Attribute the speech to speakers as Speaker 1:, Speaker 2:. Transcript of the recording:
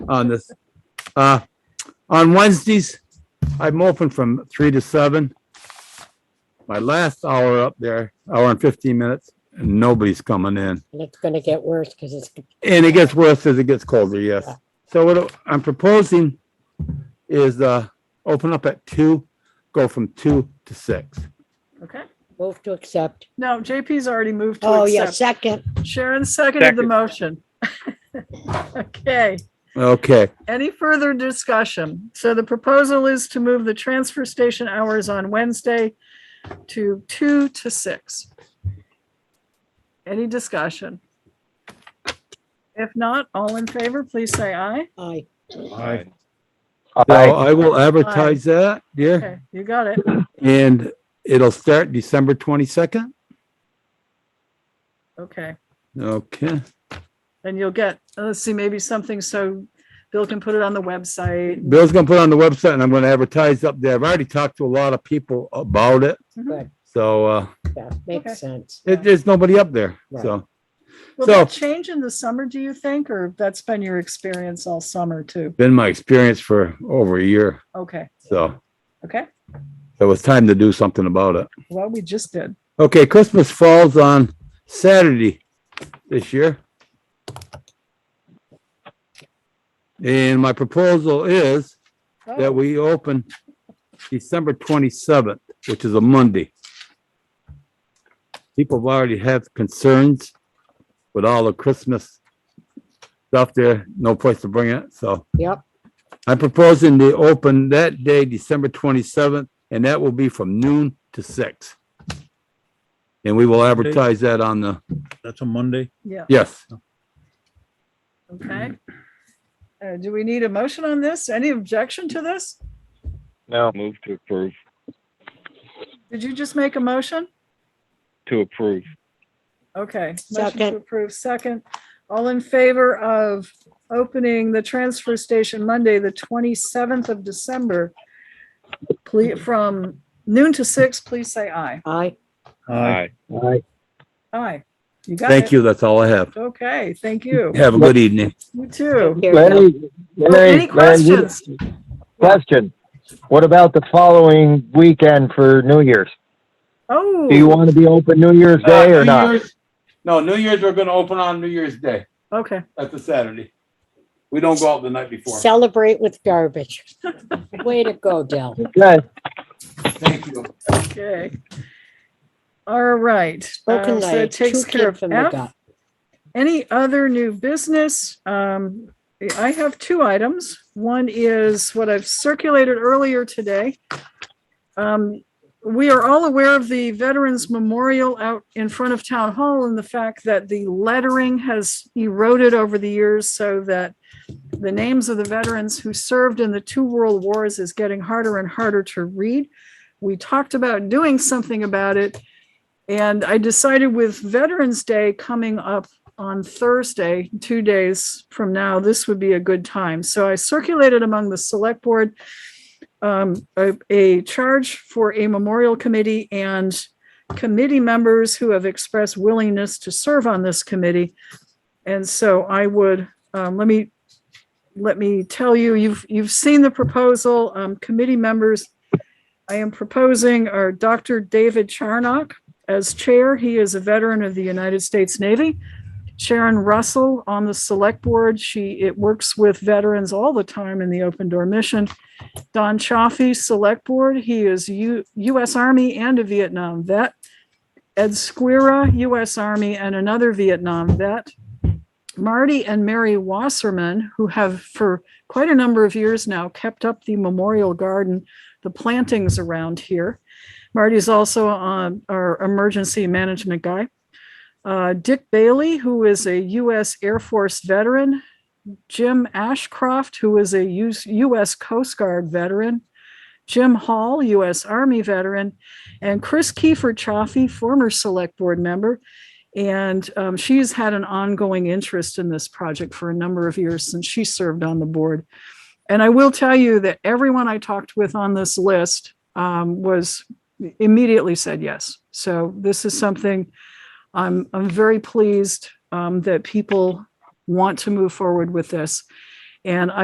Speaker 1: on this. Uh, on Wednesdays, I'm open from three to seven. My last hour up there, hour and fifteen minutes, and nobody's coming in.
Speaker 2: And it's gonna get worse because it's,
Speaker 1: And it gets worse as it gets colder, yes. So what I'm proposing is, uh, open up at two, go from two to six.
Speaker 3: Okay.
Speaker 2: move to accept.
Speaker 3: No, JP's already moved to
Speaker 2: Oh, yeah,
Speaker 3: accept.
Speaker 2: second.
Speaker 3: Sharon seconded the
Speaker 4: Second.
Speaker 3: motion. Okay,
Speaker 1: Okay,
Speaker 3: any further discussion? So the proposal is to move the transfer station hours on Wednesday to two to six. Any discussion? If not, all in favor, please say aye.
Speaker 2: Aye.
Speaker 4: Aye.
Speaker 1: so I will advertise that, yeah,
Speaker 3: Okay, you got it.
Speaker 1: and it'll start December twenty-second.
Speaker 3: Okay,
Speaker 1: Okay.
Speaker 3: and you'll get, uh, let's see, maybe something so Bill can put it on the website.
Speaker 1: Bill's gonna put it on the website and I'm gonna advertise up there. I've already talked to a lot of people about it.
Speaker 3: Mhm.
Speaker 1: So, uh,
Speaker 2: Yeah,
Speaker 3: Okay.
Speaker 2: makes sense.
Speaker 1: it, there's nobody up there, so.
Speaker 3: Will
Speaker 1: So-
Speaker 3: that change in the summer, do you think, or that's been your experience all summer too?
Speaker 1: Been my experience for over a year,
Speaker 3: Okay,
Speaker 1: so
Speaker 3: okay.
Speaker 1: it was time to do something about it.
Speaker 3: Well, we just did.
Speaker 1: Okay, Christmas falls on Saturday this year. And my proposal is that
Speaker 3: Oh,
Speaker 1: we open December twenty-seventh, which is a Monday. People have already have concerns with all the Christmas stuff there, no place to bring it, so
Speaker 2: Yep,
Speaker 1: I'm proposing to open that day, December twenty-seventh, and that will be from noon to six. And we will advertise that on the,
Speaker 4: That's a Monday.
Speaker 3: Yeah,
Speaker 1: yes,
Speaker 3: okay. Uh, do we need a motion on this? Any objection to this?
Speaker 5: No. Move to approve,
Speaker 3: Did you just make a motion?
Speaker 5: to approve.
Speaker 3: Okay. Motion
Speaker 2: Second.
Speaker 3: to approve, second. All in favor of opening the transfer station Monday, the twenty-seventh of December? Please, from noon to six, please say aye.
Speaker 2: aye.
Speaker 5: Aye.
Speaker 3: Aye. You got it.
Speaker 1: thank you, that's all I have.
Speaker 3: Okay, thank you.
Speaker 1: Have a good evening.
Speaker 3: You too.
Speaker 2: Here, no.
Speaker 6: Larry,
Speaker 3: Oh, Any
Speaker 6: Larry, Larry, you-
Speaker 3: questions?
Speaker 6: question. What about the following weekend for New Year's?
Speaker 3: Oh.
Speaker 6: Do you want to be open New Year's
Speaker 3: Uh,
Speaker 6: Day or not?
Speaker 1: No, New Year's, we're gonna open on New Year's Day.
Speaker 3: Okay,
Speaker 1: That's a Saturday. We don't go out the night before.
Speaker 2: Celebrate with garbage. Way to go, Dell.
Speaker 6: Okay.
Speaker 1: Thank you.
Speaker 3: okay. All right.
Speaker 2: Spoken
Speaker 3: uh, so
Speaker 2: like a
Speaker 3: it takes
Speaker 2: true
Speaker 3: care
Speaker 2: kid
Speaker 3: of
Speaker 2: from the
Speaker 3: F.
Speaker 2: gut.
Speaker 3: Any other new business? Um, I have two items. One is what I've circulated earlier today. Um, we are all aware of the Veterans Memorial out in front of Town Hall and the fact that the lettering has eroded over the years so that the names of the veterans who served in the two world wars is getting harder and harder to read. We talked about doing something about it. And I decided with Veterans Day coming up on Thursday, two days from now, this would be a good time. So I circulated among the select board um, a, a charge for a memorial committee and committee members who have expressed willingness to serve on this committee. And so I would, um, let me, let me tell you, you've, you've seen the proposal, um, committee members. I am proposing are Dr. David Charnock as chair. He is a veteran of the United States Navy. Sharon Russell on the select board. She, it works with veterans all the time in the open door mission. Don Chaffee, select board. He is U, US Army and a Vietnam vet. Ed Squira, US Army and another Vietnam vet. Marty and Mary Wasserman, who have for quite a number of years now kept up the memorial garden, the plantings around here. Marty's also um, our emergency management guy. Uh, Dick Bailey, who is a U.S. Air Force veteran, Jim Ashcroft, who is a U- U.S. Coast Guard veteran, Jim Hall, U.S. Army veteran, and Chris Kiefer Chaffee, former Select Board member. And um, she's had an ongoing interest in this project for a number of years since she served on the board. And I will tell you that everyone I talked with on this list um, was immediately said yes. So this is something I'm, I'm very pleased um, that people want to move forward with this. And I.